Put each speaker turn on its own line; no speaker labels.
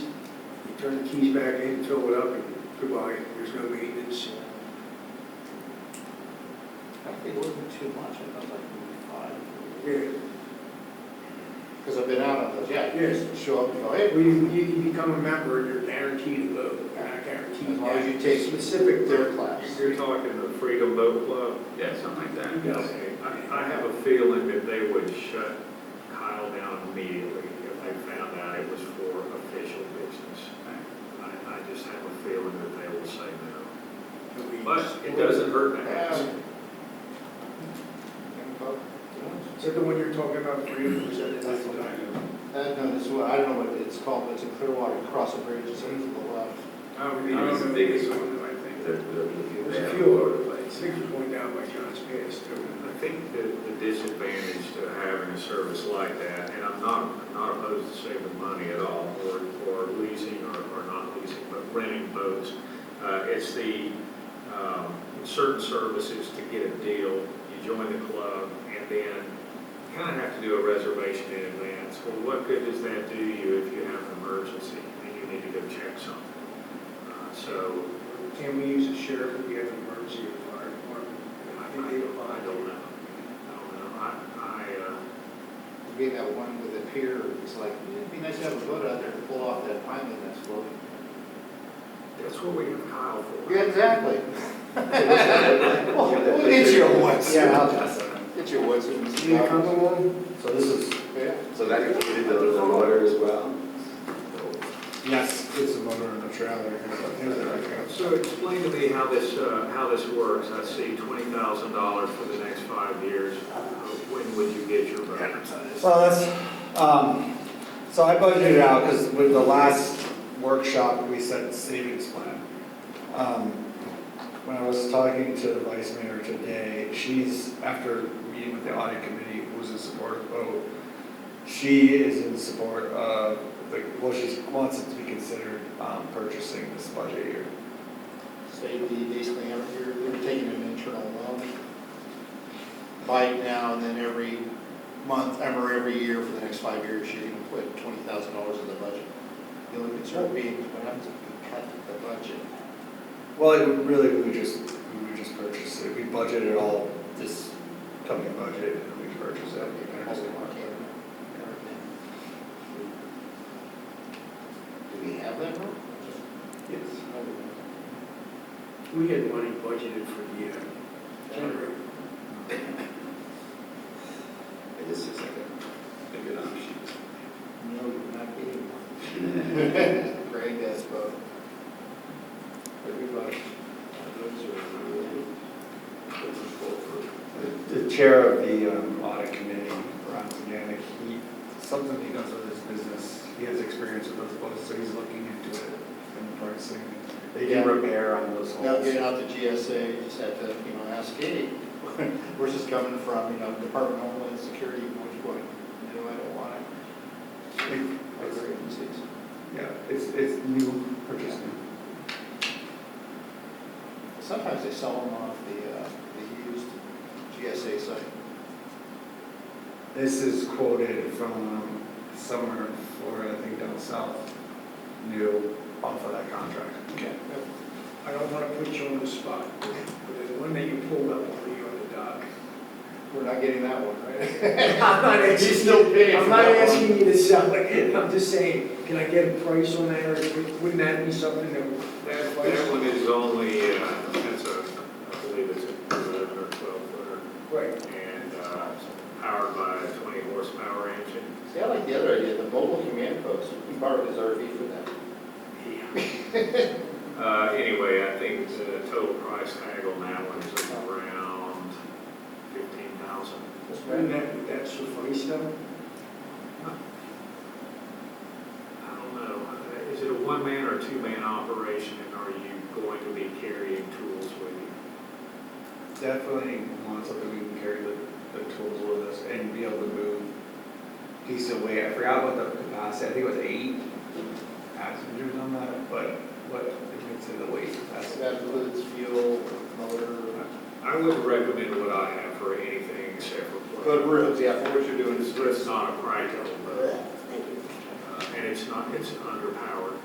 turn the keys back in, fill it up, and goodbye, there's no maintenance.
I think it wasn't too much, I thought like maybe five.
Yeah,
Because I've been out on those, yeah, you
Yes.
just show up, you go, hey,
when you, you you become a member, you're guaranteed a vote, You're not guaranteed.
as long as you
that.
take specific their class.
You're talking the Freedom Boat Club? Yeah, something like that.
Yeah.
I, I have a feeling that they would shut Kyle down immediately if they found out it was for official business. I, I just have a feeling that they will say no. But it doesn't hurt to ask.
Is that the one you're talking about, Freedom, or is that the one I know?
Uh, no, this one, I don't know what it's called, but it's in Clearwater, across the bridge, it's uh, over to the left.
I don't
It
know.
is the biggest one, I think, that,
There's a
that we have all
few
over
of
the
them,
place.
six are going down by John's Pass, too.
I think the, the disadvantage to having a service like that, and I'm not, I'm not opposed to saving money at all, or, or leasing, or, or not leasing, but renting boats, uh, it's the, um, certain services to get a deal, you join the club, and then kind of have to do a reservation in advance. Well, what good does that do you if you have an emergency and you need to go check something? Uh, So,
Can we use the sheriff if we have an emergency or fire department?
I,
I
I
think they apply.
I don't know, I don't know, I, I, uh,
Being that one with the pier, it's like, "Yeah, it'd be nice to have a boat out there to pull off that island that's floating.
That's what we have Kyle for.
Yeah, exactly. Well, It's your woods.
Yeah.
It's your woods.
Do you come along?
So this is,
Yeah.
so that included the the motor as well?
Yes, it's a motor and a trailer.
So explain to me how this, uh, how this works. I see twenty thousand dollars for the next five years. When would you get your bonus?
Well, that's, um, so I budgeted out, because with the last workshop, we set savings plan. Um, When I was talking to the vice mayor today, she's, after meeting with the audit committee, who's in support of the vote, she is in support of, the well, she wants it to be considered um, purchasing this budget year.
Safety, basically, you're, you're taking an internal loan. Buy it now, and then every month, every, every year for the next five years, you're gonna put twenty thousand dollars in the budget. The only concern being, is what happens if you cut the budget?
Well, it would really, we would just, we would just purchase it, we budget it all this coming budget, and we purchase it.
You can also mark it, everything. Do we have that? room?
Yes.
We had money budgeted for the, uh, generator.
It is just like a, a good option.
No, you're not getting one. Greg has both. Everybody.
The chair of the um, audit committee, Ron Zaganic, he, something he does with his business, he has experience with those boats, so he's looking into it and pricing. They
Yeah.
do repair on those holes.
Now, get out the GSA, you just have to, you know, ask, hey, where's this coming from, you know, Department of Homeland Security, which one? No, I don't want it. Other agencies.
Yeah, it's, it's new purchasing.
Sometimes they sell them off the, uh, the used GSA site.
This is quoted from um, somewhere in Florida, I think down south, new off of that contract.
Okay.
I don't want to put you on the spot, but the one that you pulled up on me on the dock.
We're not getting that one, right?
I'm not
He's still paying for
I'm not
that one.
asking you to sell it, I'm just saying, can I get a price on that, or wouldn't that be something that would?
That, that one is only, uh, that's a, I believe it's a eleven or twelve footer
Right,
and, uh, powered by a twenty horsepower engine.
See, I like the other idea, the mobile command post, we borrowed his RV for that.
Uh, anyway, I think the total price tag on that one is around fifteen thousand.
That's right.
wouldn't that, would that suffice though?
I don't know, uh, is it a one-man or a two-man operation, and are you going to be carrying tools with you?
Definitely want something we can carry the, the tools with us and be able to move decent weight. I forgot what the capacity, I think it was eight passengers on that, but what, it makes it the weight
So
capacity.
that includes fuel, motor.
I would recommend what I have for anything except for.
Good roof, yeah, for what you're doing is
It's not a Pride boat, uh, and it's not, it's underpowered.